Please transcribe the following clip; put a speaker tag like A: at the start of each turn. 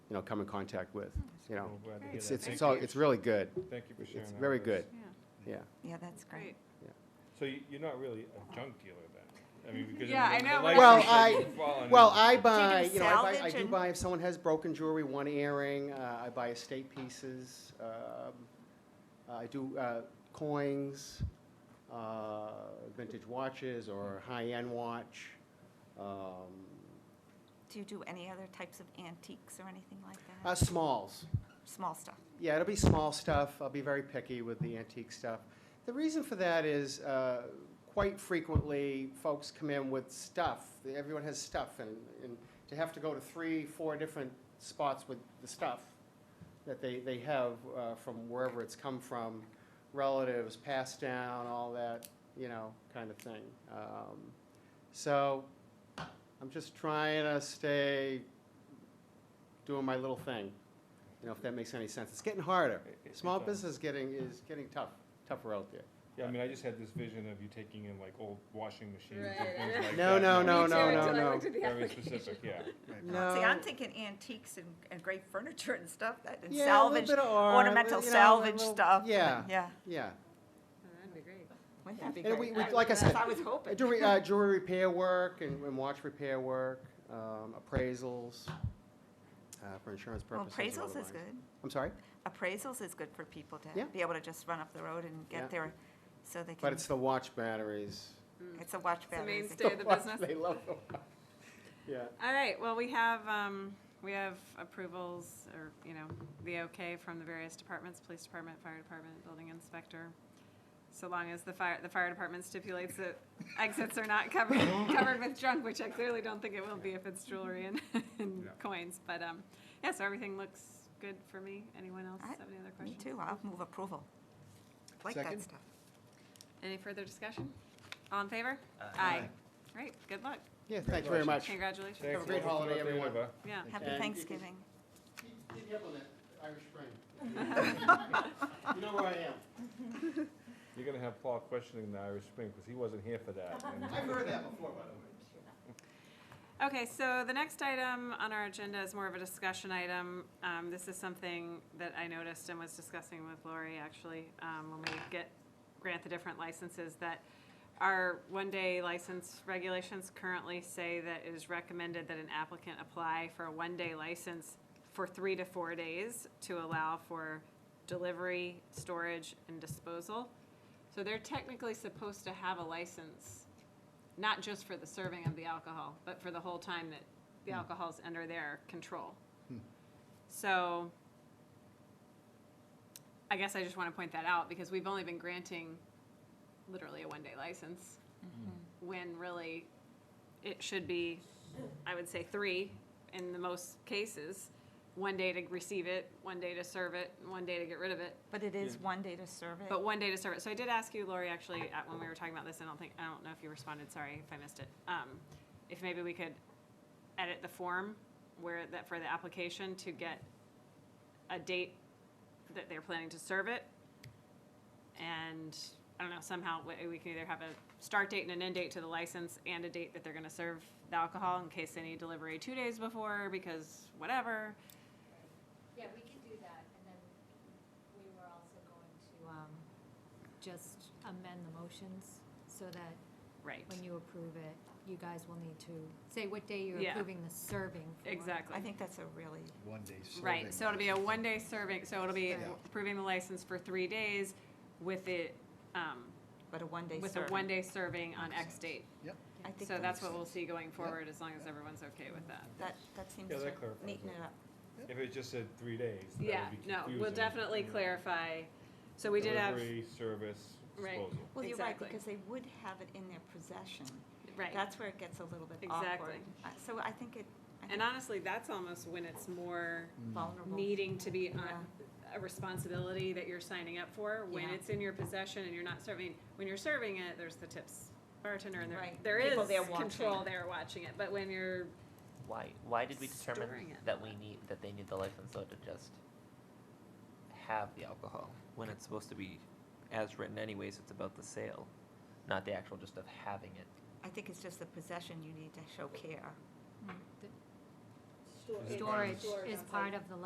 A: you know, come in contact with,
B: Hmm.
A: you know.
C: Well, glad to hear
A: It's,
C: that.
A: it's,
C: Thank
A: it's all,
C: you.
A: it's really good,
C: Thank you for sharing
A: it's
C: that
A: very
C: with us.
A: good,
D: Yeah,
A: yeah.
B: Yeah, that's great.
C: So you- you're not really a junk dealer then? I mean, because.
D: Yeah, I
C: the
D: know,
C: license
A: Well,
C: that
A: I-
C: you've fallen
A: Well,
C: under-
A: I buy,
B: do
A: you know, I buy, I
B: salvage
A: do
B: and-
A: buy, if someone has broken jewelry, one earring, uh, I buy estate pieces, um, I do, uh, coins, uh, vintage watches or high-end watch, um,
B: Do you do any other types of antiques or anything like
A: uh,
B: that?
A: smalls.
B: Small stuff.
A: Yeah, it'll be small stuff. I'll be very picky with the antique stuff. The reason for that is uh, quite frequently, folks come in with stuff. Everyone has stuff, and, and to have to go to three, four different spots with the stuff that they, they have uh, from wherever it's come from, relatives, passed down, all that, you know, kind of thing. Um, So I'm just trying to stay doing my little thing, you know, if that makes any sense. It's getting harder.
C: It- it-
A: Small
C: it does.
A: business getting, is getting tough, tougher out there.
C: Yeah, I mean, I just had this vision of you taking in like old washing machines and
E: Right,
C: things
E: right.
C: like that.
A: No, no,
C: you
A: no,
C: know,
A: no,
E: Me too,
A: no,
E: until I
A: no.
E: looked at the
C: Very
E: application.
C: specific, yeah.
A: No.
B: See, I'm thinking antiques and, and great furniture and stuff, that- and
A: Yeah, a little
B: salvage,
A: bit of art,
B: ornamental
A: you know, a
B: salvage
A: little-
B: stuff. and-
A: Yeah,
B: Yeah,
A: yeah.
E: Oh, That'd be great.
B: wouldn't that be
A: And we,
B: great?
A: we- like I
B: That's
A: said,
B: what I was hoping.
A: jewelry, uh, jewelry repair work and, and watch repair work, um, appraisals, uh, for insurance
B: Well,
A: purposes. or
B: appraisals is
A: otherwise.
B: good.
A: I'm sorry,
B: Appraisals is good for people
A: Yeah.
B: to be able to just run up the road and
A: Yeah.
B: get their, so they
A: but
B: can,
A: it's the watch batteries.
B: it's a watch
E: the
B: battery.
E: mainstay. Stay the
A: watch-
E: business.
A: They love the watch. Yeah.
E: All right, well, we have, um, we have approvals or, you know, the okay from the various departments, police department, fire department, building inspector. So long as the fire, the fire department stipulates that exits are not covered, covered with junk, which I clearly don't think it will be if it's jewelry and, and
C: Yeah.
E: coins. But, um, yeah, so everything looks good for me. Anyone else
B: I-
E: have any other
B: Oh, Me
E: questions?
B: too, I'll move approval. Like
A: Second?
B: that stuff.
E: Any further discussion? All in favor?
A: Aye.
E: Great, good luck.
A: Yeah, thank you very much.
E: Congratulations.
C: Thanks
A: Have a
C: for
A: great
C: letting us know
A: holiday,
C: what they
A: everyone.
C: deliver.
E: Yeah.
A: you.
B: Happy
A: And-
B: Thanksgiving.
A: Keep up on that Irish Spring. You know where I am.
C: You're gonna have Paul questioning the Irish Spring, because he wasn't here for that. and-
A: I've heard that before, by the way.
E: Okay, so the next item on our agenda is more of a discussion item. Um, This is something that I noticed and was discussing with Lori, actually, um, when we get, grant the different licenses, that our one-day license regulations currently say that it is recommended that an applicant apply for a one-day license for three to four days to allow for delivery, storage, and disposal. So they're technically supposed to have a license not just for the serving of the alcohol, but for the whole time that the alcohol's under their control. So I guess I just want to point that out because we've only been granting literally a one-day license
B: Mm-hmm.
E: when really it should be, I would say, three in the most cases. One day to receive it, one day to serve it, and one day to get rid of it.
B: But it is one day to serve it.
E: But one day to serve it. So I did ask you, Lori, actually, at- when we were talking about this, I don't think, I don't know if you responded, sorry if I missed it. Um, If maybe we could edit the form where, that, for the application to get a date that they're planning to serve it. And, I don't know, somehow we- we can either have a start date and an end date to the license and a date that they're gonna serve the alcohol in case they need delivery two days before, because whatever.
F: Yeah, we could do that, and then we were also going to, um, just amend the motions so that
E: Right.
F: when you approve it, you guys will need to say what day you're
E: Yeah.
F: approving the serving for.
E: Exactly.
B: I think that's a really,
G: One day serving.
E: Right, so it'll be a one-day serving, so it'll be
F: Yeah.
E: approving the license for three days with it, um,
B: but a one day
E: with a
B: serving.
E: one-day serving on X date.
B: I think
E: So that's what we'll see going
G: Yeah.
E: forward, as long as everyone's okay with that.
B: That, that seems
C: Yeah,
B: to
C: that clarifies
B: neaten
C: it.
B: it up.
C: If it just said three days, that would
E: Yeah,
C: be
E: no, we'll
C: confusing.
E: definitely clarify. So we did have,
C: Delivery, service,
E: Right.
C: disposal.
B: Well, you're right,
E: Exactly.
B: because they would have it in their possession.
E: right,
B: That's where it gets a little bit awkward.
E: Exactly.
B: Uh, So I think it, I
E: and
B: think
E: honestly, that's almost when it's more
C: Mm.
B: vulnerable.
E: needing to be on
B: Yeah.
E: a responsibility that you're signing up for, when
B: Yeah.
E: it's in your possession and you're not serving, when you're serving it, there's the tips bartender and there,
B: Right.
E: there is
B: People there watching.
E: control there watching it, but when you're
H: Why, why did we determine
E: Storing it.
H: that we need, that they need the license though to just have the alcohol? When it's supposed to be, as written anyways, it's about the sale, not the actual just of having it.
B: I think it's just the possession, you need to show care.
F: The-
E: Store-
I: Is it part
F: Storage
I: of
E: Storage
F: is
E: on site.
F: part of the